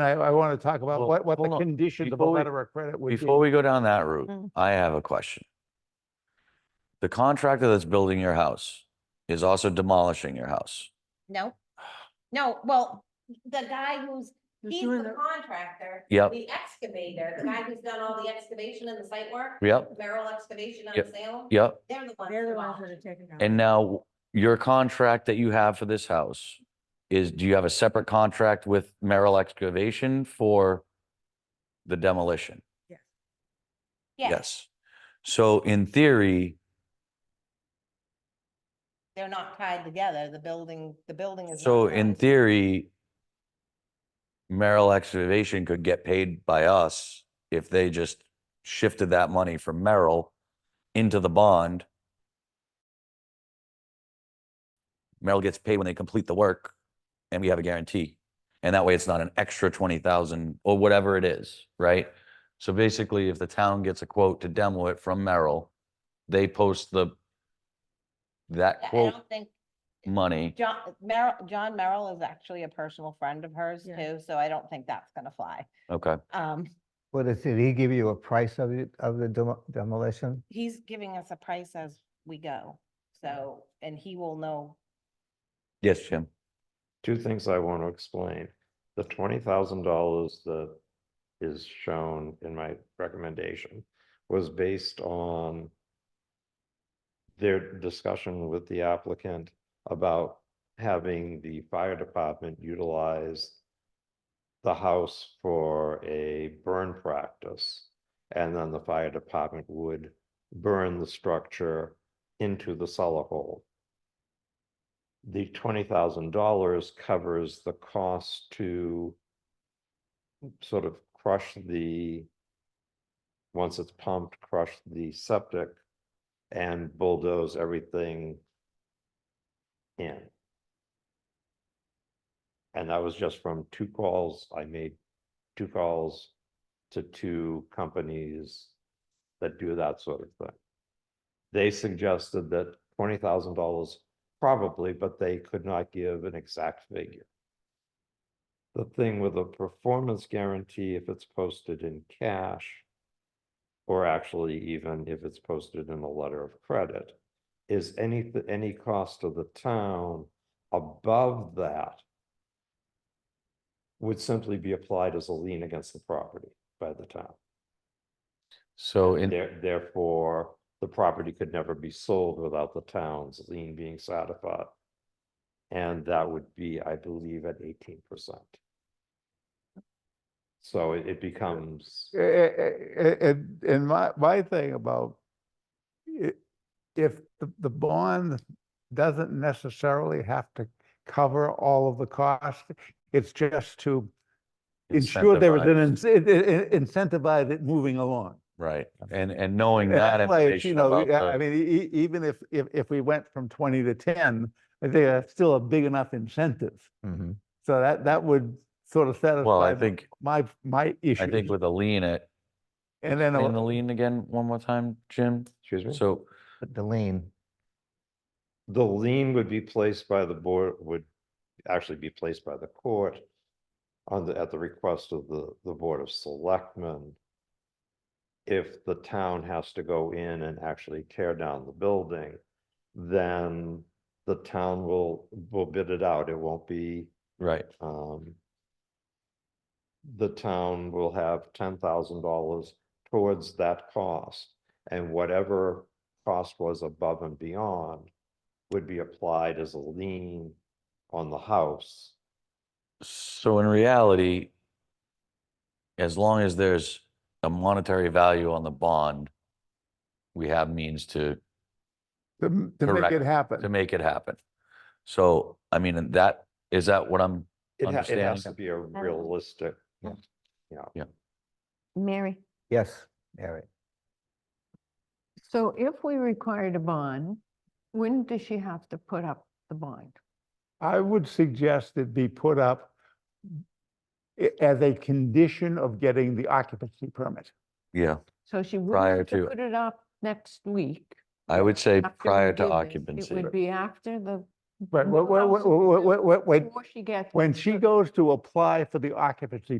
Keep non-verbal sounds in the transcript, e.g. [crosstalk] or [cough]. I, I want to talk about Well, what, what the hold on. conditions of a Before we- letter of credit would be. Before we go down that route, Mm. I have a question. The contractor that's building your house is also demolishing your house. [sighs] No, no, well, the guy who's, Who's he's doing the that? contractor. Yep. The excavator, the guy who's done all the excavation and the site work, Yep, Merrill Excavation out Yep. of Salem. yep. They're the ones. They're the ones involved. that are taking out. And now your contract that you have for this house is, do you have a separate contract with Merrill Excavation for the demolition? Yes, So in theory, they're not tied together. The building, the building is. not so in tied. theory, Merrill Excavation could get paid by us if they just shifted that money from Merrill into the bond. Merrill gets paid when they complete the work and we have a guarantee. And that way it's not an extra twenty thousand or whatever it is, right? So basically, if the town gets a quote to demo it from Merrill, they post the that I- I quote don't think money. John, Merrill, John Merrill is actually a personal friend of hers Yeah. too, so I don't think that's gonna fly. Okay. Um, What is, did he give you a price of it, of the demo- demolition? he's giving us a price as we go, so, and he will know. Yes, Jim. two things I want to explain. The twenty thousand dollars that is shown in my recommendation was based on their discussion with the applicant about having the fire department utilize the house for a burn practice. And then the fire department would burn the structure into the cellar hole the twenty thousand dollars covers the cost to sort of crush the, once it's pumped, crush the septic and bulldoze everything in. And that was just from two calls. I made two calls to two companies that do that sort of thing. They suggested that twenty thousand dollars Probably, but they could not give an exact figure. The thing with a performance guarantee, if it's posted in cash, or actually even if it's posted in a letter of credit, is any, any cost of the town above that would simply be applied as a lien against the property by the town. So in, There, therefore, the property could never be sold without the town's lien being satisfied. And that would be, I believe, at eighteen percent. So it, it becomes, Eh, eh, eh, eh, And, and my, my thing about i- if the, the bond doesn't necessarily have to cover all of the cost, it's just to ensure there is an, ince- Incentivized. i- i- incentivize it moving along. right, and, and knowing Yeah, that like, you information know, about yeah, I the- mean, e- e- even if, if, if we went from twenty to ten, I think that's still a big enough incentive. Mhm. So that, that would sort of satisfy. well, I my- think, My, my issue. I think with a lean it, And then, in the a- lean again, one more time, Jim. excuse me, So, The lien, the lien would be placed by the board, would actually be placed by the court on the, at the request of the, the Board of Selectmen. If the town has to go in and actually tear down the building, then the town will, will bid it out. It won't be, right, um, the town will have ten thousand dollars towards that cost. And whatever cost was above and beyond would be applied as a lien on the house. so in reality, as long as there's a monetary value on the bond, we have means to, to m- to make Correct. it happen. to make it happen. So, I mean, and that, is that what I'm, It ha- it has to Understanding. be a realistic, Yeah. yeah. Mary, yes, Mary. So if we required a bond, when does she have to put up the bond? I would suggest it be put up i- as a condition of getting the occupancy permit. yeah, So she would Prior have to to- put it up next week. I would say after we prior do to this. occupancy. It would be after the, But Well, wh- wh- wh- wh- wh- wh- wh- before she gets. when she the- goes to apply for the occupancy